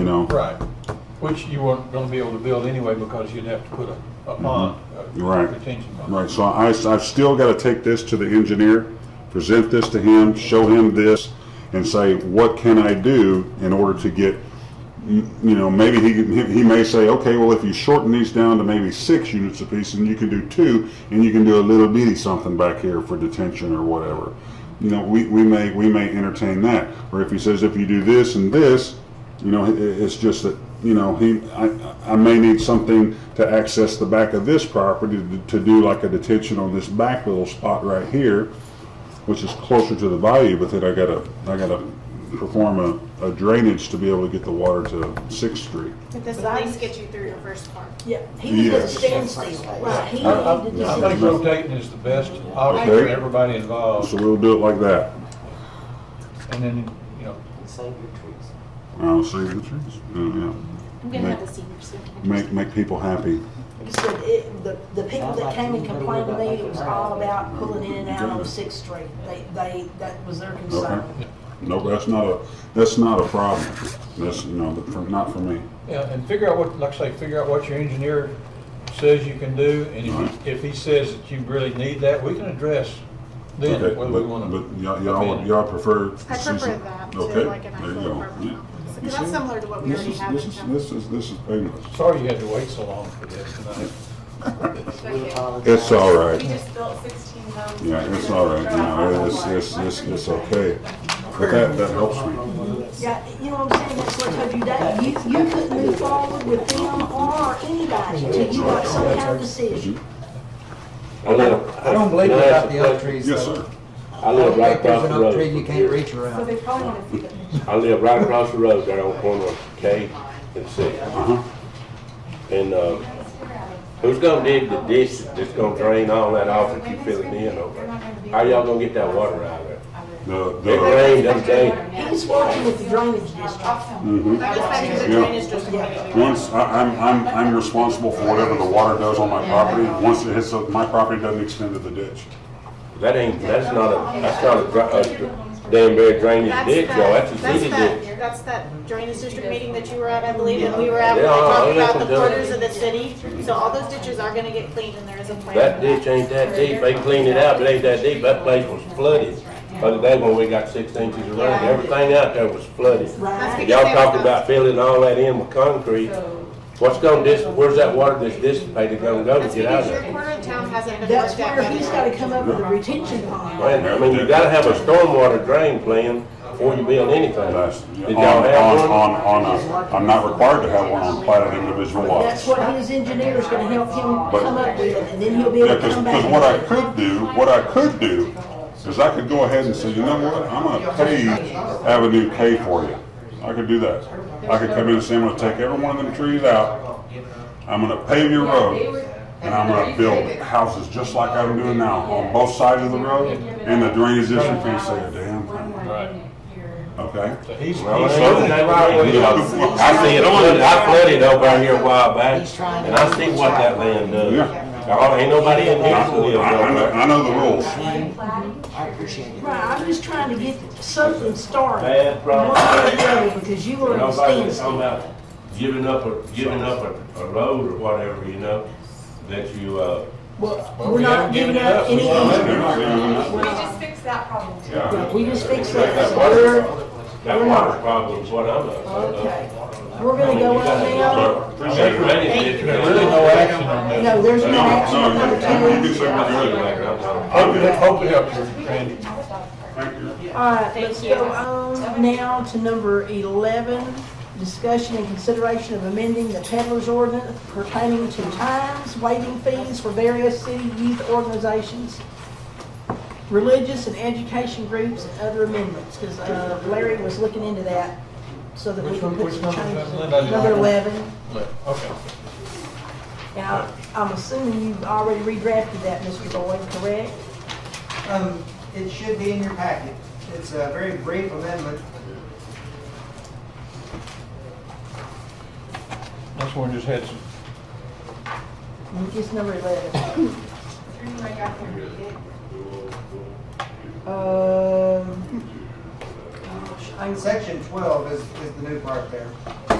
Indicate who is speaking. Speaker 1: know?
Speaker 2: Right, which you weren't gonna be able to build anyway because you'd have to put a, a pond, a
Speaker 1: Right.
Speaker 2: retention pond.
Speaker 1: Mm-hmm. Right, so I, I've still got to take this to the engineer, present this to him, show him this, and say, what can I do in order to get, m- you know, maybe he, he he may say, okay, well, if you shorten these down to maybe six units apiece, and you can do two, and you can do a little bitty something back here for detention or whatever. You know, we, we may, we may entertain that. Or if he says, if you do this and this, you know, it, it's just that, you know, he, I, I may need something to access the back of this property to, to do like a detention on this back little spot right here, which is closer to the bayou, but then I gotta, I gotta perform a, a drainage to be able to get the water to Sixth Street.
Speaker 3: But
Speaker 4: But
Speaker 3: this
Speaker 4: At least
Speaker 3: last,
Speaker 4: get you through your first part.
Speaker 3: yeah, he was at
Speaker 1: Yes.
Speaker 3: standstill, right, he
Speaker 2: I, I-
Speaker 3: needed
Speaker 2: I think
Speaker 3: to.
Speaker 2: rotating is the best option for
Speaker 1: Okay.
Speaker 2: everybody involved,
Speaker 1: So we'll do it like that.
Speaker 2: and then, you know,
Speaker 5: Save your trees.
Speaker 1: I'll see the trees. Yeah,
Speaker 4: I'm gonna have the senior soon.
Speaker 1: yeah. Make, make people happy.
Speaker 3: He said, it, the, the people that came and complained to me, it was all about pulling in and out of Sixth Street, they, they, that was their concern.
Speaker 1: Okay. No, that's not a, that's not a problem. That's, you know, for- not for me.
Speaker 2: yeah, and figure out what, like I say, figure out what your engineer says you can do, and if,
Speaker 1: Right.
Speaker 2: he- if he says that you really need that, we can address then
Speaker 1: Okay,
Speaker 2: whether we
Speaker 1: but,
Speaker 2: wanna.
Speaker 1: but y'all,
Speaker 2: amend
Speaker 1: y'all,
Speaker 2: it.
Speaker 1: y'all prefer.
Speaker 4: I prefer that to
Speaker 1: Okay,
Speaker 4: like an
Speaker 1: there you
Speaker 4: actual
Speaker 1: go.
Speaker 4: apartment.
Speaker 1: Yeah.
Speaker 4: Because that's similar to what we
Speaker 1: This
Speaker 4: already
Speaker 1: is-
Speaker 4: have
Speaker 1: This
Speaker 4: in
Speaker 1: is,
Speaker 4: town.
Speaker 1: this is, this is painless.
Speaker 2: Sorry you had to wait so long for this tonight.
Speaker 5: We apologize.
Speaker 1: It's all right.
Speaker 4: We just built sixteen homes.
Speaker 1: Yeah, it's all right, no, it's, it's, it's, it's okay. But that, that helps me.
Speaker 3: Yeah, you know what I'm saying, that's what I told you, that, you, you couldn't move forward with them or anybody till you got some kind of decision.
Speaker 6: I live-
Speaker 7: I don't believe
Speaker 6: Can
Speaker 7: it
Speaker 6: I
Speaker 7: about
Speaker 6: ask
Speaker 7: the
Speaker 6: a
Speaker 7: other
Speaker 6: question?
Speaker 7: trees.
Speaker 1: Yes,
Speaker 7: though.
Speaker 1: sir.
Speaker 6: I
Speaker 7: I don't
Speaker 6: live right
Speaker 7: think there's
Speaker 6: across
Speaker 7: an
Speaker 6: the
Speaker 7: oak tree you
Speaker 6: road.
Speaker 7: can't reach
Speaker 3: So
Speaker 7: around.
Speaker 3: they probably wanna see the
Speaker 6: I live right across the road there on corner of K and C.
Speaker 1: Uh-huh.
Speaker 6: And, uh, who's gonna dig the ditch that's gonna drain all that off and keep filling in over? there? How y'all gonna get that water out of there?
Speaker 1: The,
Speaker 6: It
Speaker 1: the,
Speaker 6: rained, it rained.
Speaker 3: He's working with the drainage district.
Speaker 1: mhm.
Speaker 4: I just think the
Speaker 1: Yeah.
Speaker 4: drainage district. would be-
Speaker 1: Once, I, I'm, I'm, I'm responsible for whatever the water does on my property. Once it hits, up- my property doesn't extend to the ditch.
Speaker 6: That ain't, that's not a, that's not a, dra- a dra- damn very drainage
Speaker 4: That's
Speaker 6: ditch,
Speaker 4: that-
Speaker 6: y'all, that's a
Speaker 4: that's
Speaker 6: city
Speaker 4: that-
Speaker 6: ditch.
Speaker 4: That's that drainage district meeting that you were at, I believe, and we were at,
Speaker 6: Yeah.
Speaker 4: when they talked
Speaker 6: Yeah,
Speaker 4: about the
Speaker 6: I'll
Speaker 4: quarters of the city. So all those ditches are gonna get cleaned and there is a plan.
Speaker 6: That ditch ain't that deep, they cleaned it out, but it ain't that deep, that place was flooded. Other day when we got six inches of rain, everything out there was flooded.
Speaker 4: That's
Speaker 3: Right,
Speaker 4: because
Speaker 6: Y'all
Speaker 4: they were
Speaker 6: talking
Speaker 4: supposed-
Speaker 6: about filling all that in with concrete, what's gonna dis, where's that water that's dissipated gonna go to
Speaker 4: That's
Speaker 6: get out
Speaker 4: because
Speaker 6: of
Speaker 4: your
Speaker 6: there?
Speaker 4: corner of town hasn't been
Speaker 3: that's
Speaker 4: worked
Speaker 3: where
Speaker 4: out.
Speaker 3: he's
Speaker 4: yet.
Speaker 3: gotta come up with a retention pond.
Speaker 6: Man, I mean, you gotta have a stormwater drain plan before you build anything.
Speaker 1: That's, on,
Speaker 6: Did y'all
Speaker 1: on,
Speaker 6: have one?
Speaker 1: on, on a, I'm not required to have one on platted individual lots.
Speaker 3: That's what his engineer is gonna help him come up with, and then he'll be
Speaker 1: Yeah,
Speaker 3: able to
Speaker 1: because,
Speaker 3: come back.
Speaker 1: what I could do, what I could do, is I could go ahead and say, you know what, I'm gonna pay Avenue K for you. I could do that. I could come in and say, I'm gonna take every one of them trees out, I'm gonna pave your road, and I'm gonna build houses just like I'm doing now, on both sides of the road, and the drainage district can say a damn thing,
Speaker 2: Right,
Speaker 1: okay?
Speaker 2: so he's, he's.
Speaker 6: Well, it ain't nothing wrong with it. I see it on, I flooded over here a while back, and I see what that land
Speaker 1: Yeah.
Speaker 6: does. Oh, ain't nobody in
Speaker 1: I,
Speaker 6: here who lives
Speaker 1: I
Speaker 6: over
Speaker 1: know,
Speaker 6: there.
Speaker 1: I know the rules.
Speaker 5: I appreciate it.
Speaker 3: Right, I'm just trying to get something started.
Speaker 6: Bad problem.
Speaker 3: One way or the other, Because you were in a
Speaker 6: Nobody's talking
Speaker 3: standstill.
Speaker 6: about giving up a, giving up a, a road or whatever, you know, that you, uh,
Speaker 3: Well,
Speaker 2: Well,
Speaker 3: we're
Speaker 2: we
Speaker 3: not
Speaker 2: haven't given
Speaker 3: giving
Speaker 2: it
Speaker 3: up
Speaker 2: up.
Speaker 3: any.
Speaker 8: We just fixed that problem.
Speaker 3: Yeah, We just fixed
Speaker 6: Like
Speaker 3: that,
Speaker 6: that
Speaker 3: so
Speaker 6: water,
Speaker 3: we're,
Speaker 6: that water problem is what I'm, uh,
Speaker 3: okay,
Speaker 6: uh.
Speaker 3: we're
Speaker 6: I
Speaker 3: gonna
Speaker 6: mean,
Speaker 3: go
Speaker 6: you
Speaker 3: up
Speaker 6: gotta-
Speaker 3: now.
Speaker 1: Appreciate it.
Speaker 6: Ready,
Speaker 2: There's really no action on this.
Speaker 3: No, there's
Speaker 1: No,
Speaker 3: no action
Speaker 1: no,
Speaker 3: on
Speaker 1: you
Speaker 3: number
Speaker 1: can
Speaker 3: two.
Speaker 1: you can say what you're doing.
Speaker 2: Hope it, hope it helps you, Randy.
Speaker 1: Thank you.
Speaker 3: All right, let's go on now to number 11, discussion and consideration of amending the peddler's ordinance pertaining to times, waiving fees for various city youth organizations, religious and education groups, and other amendments, because Larry was looking into that, so that we
Speaker 2: Which
Speaker 3: can
Speaker 2: one-
Speaker 3: put
Speaker 2: which
Speaker 3: some
Speaker 2: number is
Speaker 3: changes.
Speaker 2: that, Linda?
Speaker 3: Number 11.
Speaker 2: Okay.
Speaker 3: Now, I'm assuming you've already redrafted that, Mr. Boyd, correct?
Speaker 5: Um, it should be in your packet. It's a very brief amendment.
Speaker 2: This one just had some
Speaker 3: It's number 11.
Speaker 8: Anyway, I got there.
Speaker 3: Um, gosh, I- Um,
Speaker 5: Section twelve is, is the new part there.